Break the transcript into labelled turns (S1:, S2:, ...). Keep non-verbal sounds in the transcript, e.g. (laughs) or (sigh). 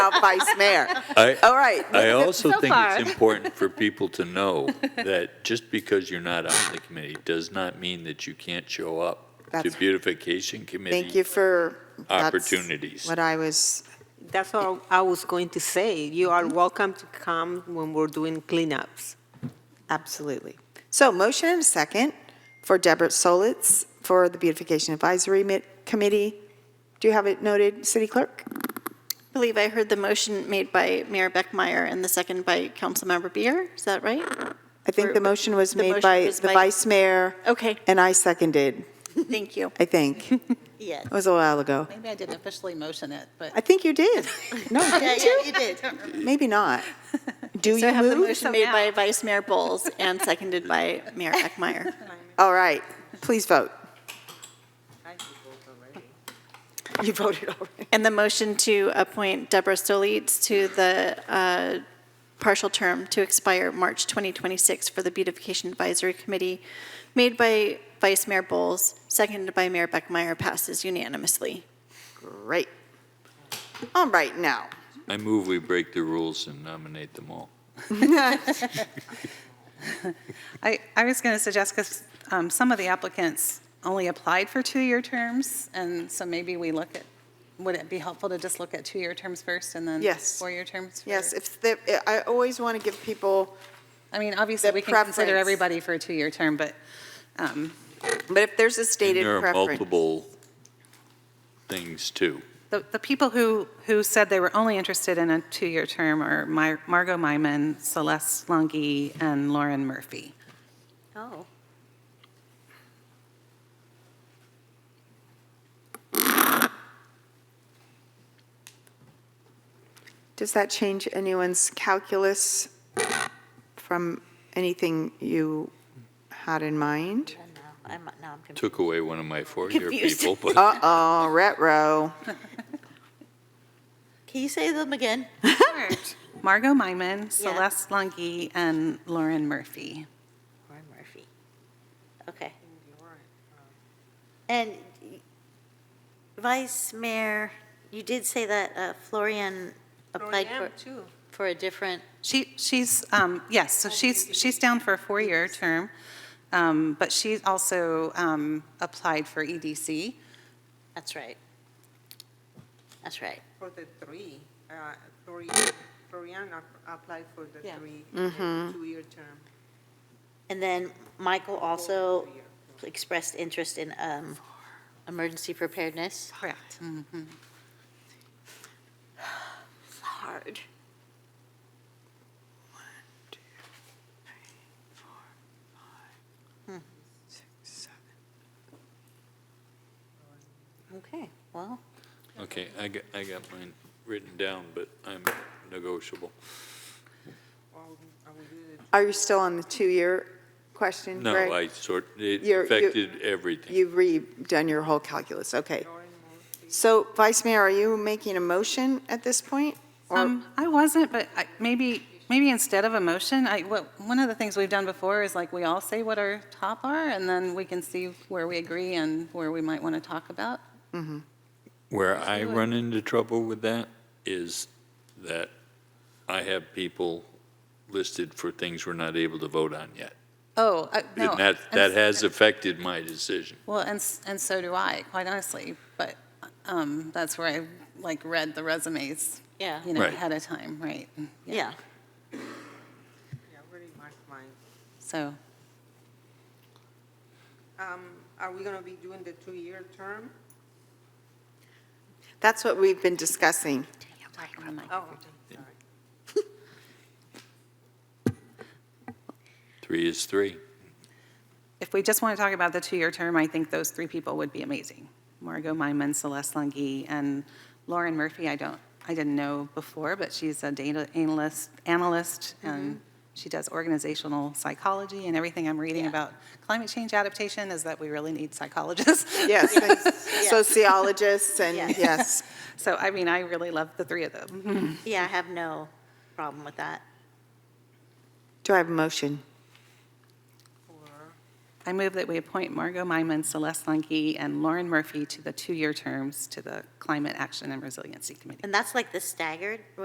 S1: up vice mayor.
S2: I-
S1: All right.
S2: I also
S3: So
S2: think
S3: far.
S2: it's important for people
S1: (laughs)
S2: to know that just because you're not on the committee does not mean that you can't show up to
S1: That's-
S2: beautification committee.
S1: Thank you for. that's
S2: Opportunities.
S1: What I was, Mm-hmm.
S4: That's all I was going to say. You are welcome to come when we're doing cleanups.
S1: absolutely. So motion and a second for Deborah Solitz for the Beautification Advisory Mi- Committee. Do you have it noted, City Clerk?
S5: I believe I heard the motion made by Mayor Beckmeyer and the second by Councilmember Beer. Is that right?
S1: I think the motion was
S5: The
S1: made
S5: motion
S1: by
S5: was
S1: the
S5: by-
S1: vice mayor,
S5: Okay,
S1: and I seconded,
S5: thank you.
S1: I think. It
S6: Yeah,
S1: was a while ago.
S6: maybe I didn't officially motion it, but.
S1: (laughs) I think you did. No,
S6: Yeah,
S1: didn't
S6: yeah,
S1: you?
S6: you did. (laughs)
S1: Maybe not. Do
S5: So I
S1: you
S5: have the
S1: move?
S5: motion made by Vice Mayor Bowles and seconded by Mayor Beckmeyer.
S1: All right, please vote. You voted already.
S5: And the motion to appoint Deborah Stolitz to the uh, partial term to expire March 2026 for the Beautification Advisory Committee, made by Vice Mayor Bowles, seconded by Mayor Beckmeyer, passes unanimously.
S1: Great. All right, now,
S2: I move we break the rules and nominate them all.
S7: I, I was going to suggest, because um, some of the applicants only applied for two-year terms, and so maybe we look at, would it be helpful to just look at two-year terms first and then
S1: Yes.
S7: four-year terms? for-
S1: yes, if, the- I always want to give people,
S7: I mean, obviously,
S1: the
S7: we can consider
S1: preference.
S7: everybody for a two-year term, but um,
S1: but if there's a
S2: And
S1: stated
S2: there are
S1: preference.
S2: multiple things too.
S7: the, the people who, who said they were only interested in a two-year term are Mar- Margot Myman, Celeste Lungi, and Lauren Murphy.
S4: Oh.
S1: Does that change anyone's calculus from anything you had in mind?
S6: I don't know. I'm, no, I'm confused.
S2: Took away one of my four-year
S5: Confused.
S2: people,
S1: (laughs)
S2: but
S1: Uh-oh, retro.
S6: Can you say them again?
S7: Margot Myman, Celeste Lungi, and Lauren Murphy.
S6: Lauren Murphy. Okay. And Vice Mayor, you did say that uh, Florian applied for, for a different,
S7: She, she's, um, yes, so she's, she's down for a four-year term, um, but she also um, applied for EDC.
S6: that's right. That's right.
S8: For the three, uh, Flori- Florian ap- applied for the
S7: Yeah.
S8: three, uh, two-year term.
S6: And then Michael also expressed interest in um, emergency preparedness.
S7: Correct.
S6: Hard. Okay, well,
S1: Oh.
S2: Okay, I got, I got mine written down, but I'm negotiable.
S8: Or I will do the
S1: Are you still on the two-year question,
S2: No,
S1: Greg?
S2: I sort, it
S1: You're- you-
S2: affected everything.
S1: You've redone your whole calculus, okay.
S8: Lauren Murphy.
S1: So Vice Mayor, are you making a motion at this point? Or-
S7: Um, I wasn't, but I- maybe, maybe instead of a motion, I, what, one of the things we've done before is like, we all say what our top are, and then we can see where we agree and where we might want to talk about.
S2: Where I run into trouble with that is that I have people listed for things we're not able to vote on yet.
S7: Oh, I- no.
S2: And that, that has affected my decision.
S7: Well, and, s- and so do I, quite honestly, but um, that's where I, like, read the resumes,
S6: yeah,
S7: you know,
S2: Right.
S7: ahead of time, right?
S6: yeah.
S8: Yeah, I already marked mine.
S7: So.
S8: Um, Are we going to be doing the two-year term?
S1: That's what we've been (laughs) discussing.
S8: Oh,
S2: Three is three.
S7: If we just want to talk about the two-year term, I think those three people would be amazing. Margot Myman, Celeste Lungi, and Lauren Murphy, I don't, I didn't know before, but she's a data analyst, analyst, and she does organizational psychology, and everything I'm reading about climate change adaptation is that we really need psychologists.
S1: Yes, and sociologists and,
S6: Yeah.
S1: yes.
S7: (laughs) So, I mean, I really love the three of them.
S6: Yeah, I have no problem with that.
S1: Do I have a motion?
S7: I move that we appoint Margot Myman, Celeste Lungi, and Lauren Murphy to the two-year terms to the Climate Action and Resiliency Committee.
S6: And that's like the staggered,